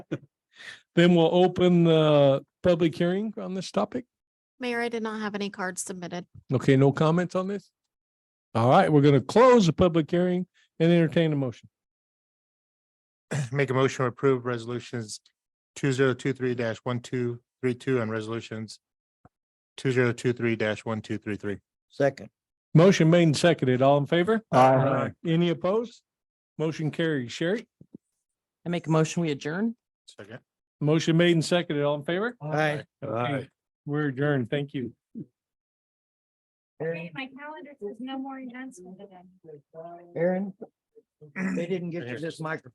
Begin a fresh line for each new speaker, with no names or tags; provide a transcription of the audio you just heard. Then we'll open the public hearing on this topic.
Mayor, I did not have any cards submitted.
Okay, no comments on this? All right, we're gonna close the public hearing and entertain a motion.
Make a motion to approve resolutions two zero two three one two three two and resolutions two zero two three one two three three.
Second.
Motion made and seconded. All in favor?
Aye.
Any opposed? Motion carried. Sherry,
I make a motion, we adjourn.
Second.
motion made and seconded. All in favor?
Aye.
Okay, We're adjourned. Thank you.
Aaron,
My calendar says no more events.
Aaron, they didn't get you this microphone.